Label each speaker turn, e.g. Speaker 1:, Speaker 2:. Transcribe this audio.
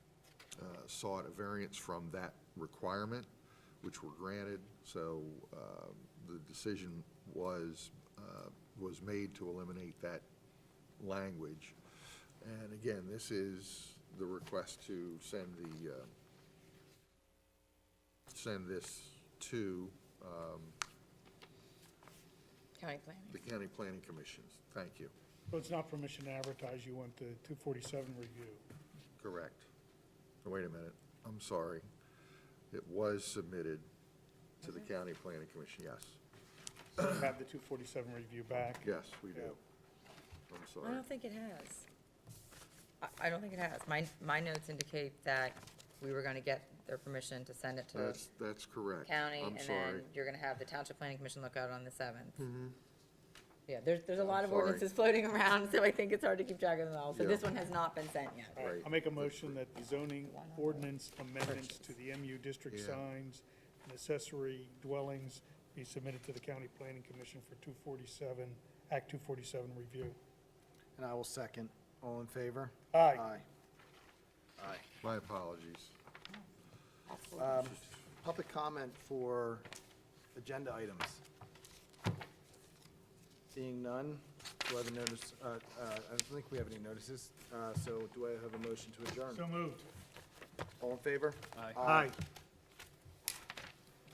Speaker 1: uh, sought a variance from that requirement, which were granted. So um, the decision was, uh, was made to eliminate that language. And again, this is the request to send the, uh, send this to um,
Speaker 2: County planning.
Speaker 1: the County Planning Commission. Thank you.
Speaker 3: So it's not permission to advertise, you want the 247 review.
Speaker 1: Correct. Oh, Wait a minute, I'm sorry. It was submitted to the County Planning Commission, yes.
Speaker 3: So you Have the 247 review back.
Speaker 1: Yes, we do. I'm
Speaker 2: I
Speaker 1: sorry.
Speaker 2: don't think it has. I, I don't think it has. My, my notes indicate that we were gonna get their permission to send it to
Speaker 1: That's, that's correct.
Speaker 2: county,
Speaker 1: I'm
Speaker 2: and then
Speaker 1: sorry. Mm-hmm.
Speaker 2: you're gonna have the Township Planning Commission look out on the seventh. Yeah, there's, there's a lot of
Speaker 1: sorry.
Speaker 2: ordinances floating around, so I think it's hard to keep track of them all, so
Speaker 1: Yeah.
Speaker 2: this one has not been sent yet.
Speaker 3: All right,
Speaker 1: Right.
Speaker 3: I'll make a motion that the zoning
Speaker 2: Why not?
Speaker 3: ordinance amendments to the MU district
Speaker 1: Yeah.
Speaker 3: signs and accessory dwellings be submitted to the county planning commission for 247, Act 247 review.
Speaker 4: And I will second. All in favor?
Speaker 3: Aye.
Speaker 4: Aye.
Speaker 1: My apologies.
Speaker 4: Um, Public comment for agenda items. Seeing none, do I have a notice, uh, uh, I don't think we have any notices, uh, so do I have a motion to adjourn?
Speaker 3: So moved.
Speaker 4: All in favor?
Speaker 3: Aye.